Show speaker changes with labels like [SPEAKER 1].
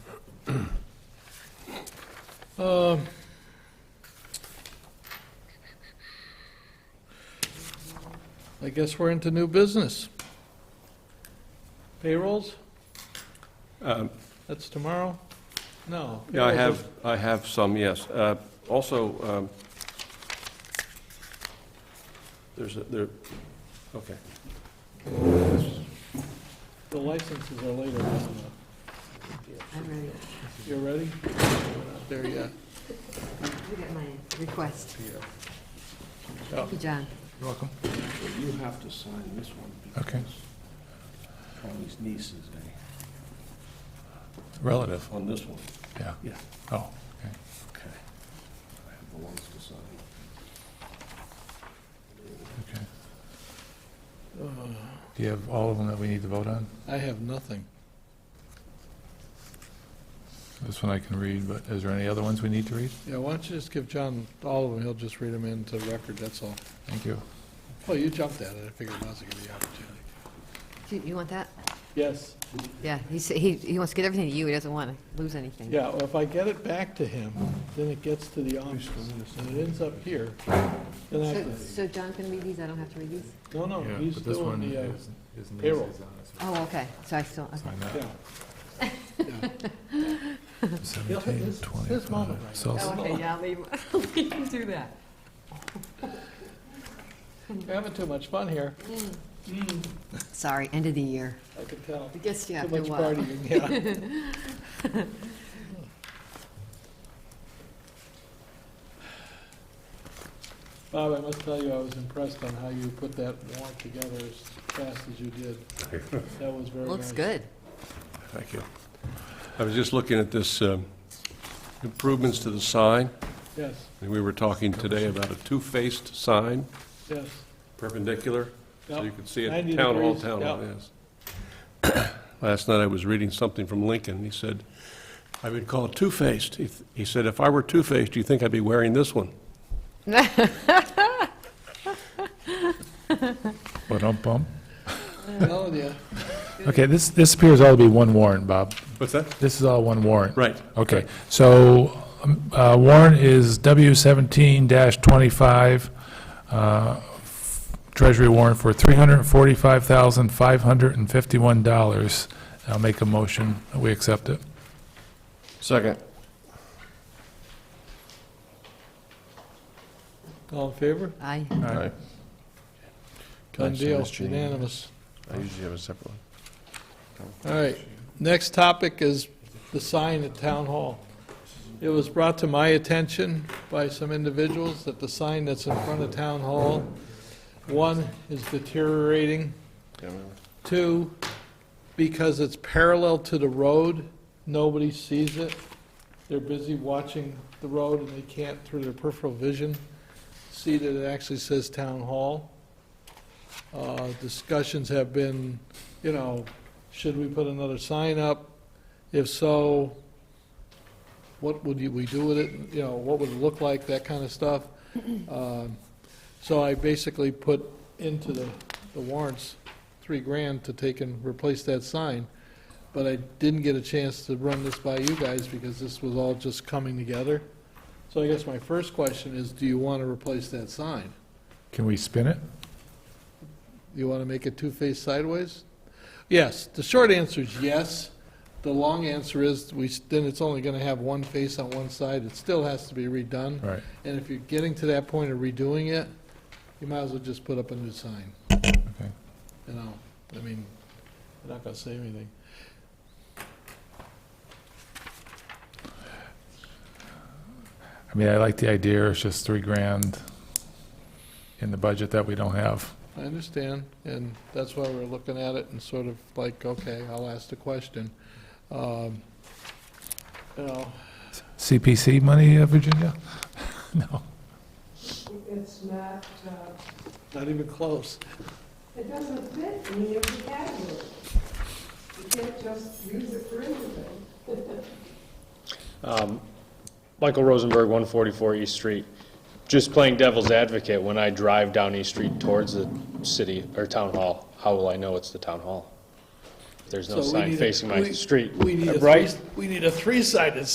[SPEAKER 1] Um, I guess we're into new business. Payrolls,
[SPEAKER 2] Um,
[SPEAKER 1] that's tomorrow? No. Oh,
[SPEAKER 2] Yeah, I have, I have some, yes. Uh, Also, um, there's, a- there, okay.
[SPEAKER 1] The licenses are later.
[SPEAKER 3] I'm ready.
[SPEAKER 1] You're ready? There, yeah.
[SPEAKER 3] You get my request. Thank you, John.
[SPEAKER 4] You're welcome.
[SPEAKER 5] You have to sign this one.
[SPEAKER 4] Okay.
[SPEAKER 5] because Charlie's niece is a-
[SPEAKER 4] Relative,
[SPEAKER 5] eh, on this one.
[SPEAKER 4] yeah.
[SPEAKER 5] Yeah.
[SPEAKER 4] Oh,
[SPEAKER 5] Okay. I have the ones to sign.
[SPEAKER 4] okay. Do you have all of them that we need to vote on?
[SPEAKER 1] Uh, I have nothing.
[SPEAKER 4] This one I can read, but is there any other ones we need to read?
[SPEAKER 1] Yeah, why don't you just give John all of them, he'll just read them into record, that's all.
[SPEAKER 4] Thank you.
[SPEAKER 1] Well, you jumped at it, I figured now's a good opportunity.
[SPEAKER 3] Do You you want that?
[SPEAKER 1] Yes,
[SPEAKER 3] Yeah, he sa- he he wants to get everything to you, he doesn't want to lose anything.
[SPEAKER 1] yeah, well, if I get it back to him, then it gets to the office, and it ends up here. Then I have
[SPEAKER 3] So
[SPEAKER 1] to
[SPEAKER 3] so John can read these, I don't have to read these?
[SPEAKER 1] No, no, Oh, he's
[SPEAKER 4] But this
[SPEAKER 1] doing
[SPEAKER 4] one
[SPEAKER 1] the, uh,
[SPEAKER 4] is, his niece
[SPEAKER 1] payroll.
[SPEAKER 4] is on it, so
[SPEAKER 3] Oh, okay, so I still, okay.
[SPEAKER 4] sign that.
[SPEAKER 1] yeah. Yeah. Yeah, it's-
[SPEAKER 4] Seventeen,
[SPEAKER 1] it's his
[SPEAKER 4] twenty-five.
[SPEAKER 1] moment right
[SPEAKER 4] So-
[SPEAKER 3] Oh, okay, yeah, I'll leave leave him do that.
[SPEAKER 1] We're having too much fun here,
[SPEAKER 3] Mm.
[SPEAKER 1] Mm,
[SPEAKER 3] Sorry, end of the year.
[SPEAKER 1] I can tell.
[SPEAKER 3] It gets you
[SPEAKER 1] Too
[SPEAKER 3] after a
[SPEAKER 1] much
[SPEAKER 3] while.
[SPEAKER 1] partying, yeah. Bob, I must tell you, I was impressed on how you put that warrant together as fast as you did. That was very nice.
[SPEAKER 3] uh, Looks good.
[SPEAKER 2] Thank you. I was just looking at this um, improvements to the sign.
[SPEAKER 1] Yes,
[SPEAKER 2] and We were talking today about a two-faced sign,
[SPEAKER 1] yes.
[SPEAKER 2] perpendicular, so you
[SPEAKER 1] Yep.
[SPEAKER 2] could see it,
[SPEAKER 1] 90
[SPEAKER 2] town hall,
[SPEAKER 1] degrees,
[SPEAKER 2] town hall,
[SPEAKER 1] yeah.
[SPEAKER 2] yes. Last night I was reading something from Lincoln, he said, I would call it two-faced. He th- He said, if I were two-faced, do you think I'd be wearing this one?
[SPEAKER 4] Ba-dum-bum.
[SPEAKER 1] Well, yeah,
[SPEAKER 4] Okay, this, this appears all to be one warrant, Bob.
[SPEAKER 2] What's that?
[SPEAKER 4] This is all one warrant.
[SPEAKER 2] Right.
[SPEAKER 4] Okay, so um, uh, warrant is W seventeen twenty-five, uh, treasury warrant for three hundred and forty-five thousand, five hundred and fifty-one dollars. I'll make a motion, that we accept it.
[SPEAKER 5] Second.
[SPEAKER 1] all in favor?
[SPEAKER 3] I,
[SPEAKER 5] Aye. Can I
[SPEAKER 1] Done
[SPEAKER 5] sign
[SPEAKER 1] deal,
[SPEAKER 5] this, Jean?
[SPEAKER 1] unanimous.
[SPEAKER 5] I usually have a separate one.
[SPEAKER 1] All right, next topic is the sign at Town Hall. It was brought to my attention by some individuals that the sign that's in front of Town Hall, one, is deteriorating. Two, because it's parallel to the road, nobody sees it. They're busy watching the road and they can't, through their peripheral vision, see that it actually says Town Hall. Uh, Discussions have been, you know, should we put another sign up? If so, what would you- we do with it? You know, what would it look like, that kind of stuff. Um, So I basically put into the the warrants, three grand to take and replace that sign. But I didn't get a chance to run this by you guys because this was all just coming together. So I guess my first question is, do you want to replace that sign?
[SPEAKER 4] Can we spin it?
[SPEAKER 1] You want to make it two-faced sideways? Yes, the short answer is yes. The long answer is, we, s- then it's only going to have one face on one side, it still has to be redone.
[SPEAKER 4] Right,
[SPEAKER 1] And if you're getting to that point of redoing it, you might as well just put up a new sign,
[SPEAKER 4] okay.
[SPEAKER 1] you know? I mean, you're not going to save anything.
[SPEAKER 4] I mean, I like the idea, it's just three grand in the budget that we don't have.
[SPEAKER 1] I understand, and that's why we're looking at it and sort of like, okay, I'll ask the question. Um, You know,
[SPEAKER 4] CPC money, uh, Virginia? No,
[SPEAKER 6] It's not, uh,
[SPEAKER 1] not even close.
[SPEAKER 6] it doesn't fit any of the categories. You can't just use it for anything.
[SPEAKER 7] Um, Michael Rosenberg, 144 East Street. Just playing devil's advocate, when I drive down East Street towards the city or town hall, how will I know it's the town hall? If There's no
[SPEAKER 1] So we
[SPEAKER 7] sign
[SPEAKER 1] need a-
[SPEAKER 7] facing my
[SPEAKER 1] we-
[SPEAKER 7] street.
[SPEAKER 1] We need a
[SPEAKER 7] Right?
[SPEAKER 1] three, we need a three-sided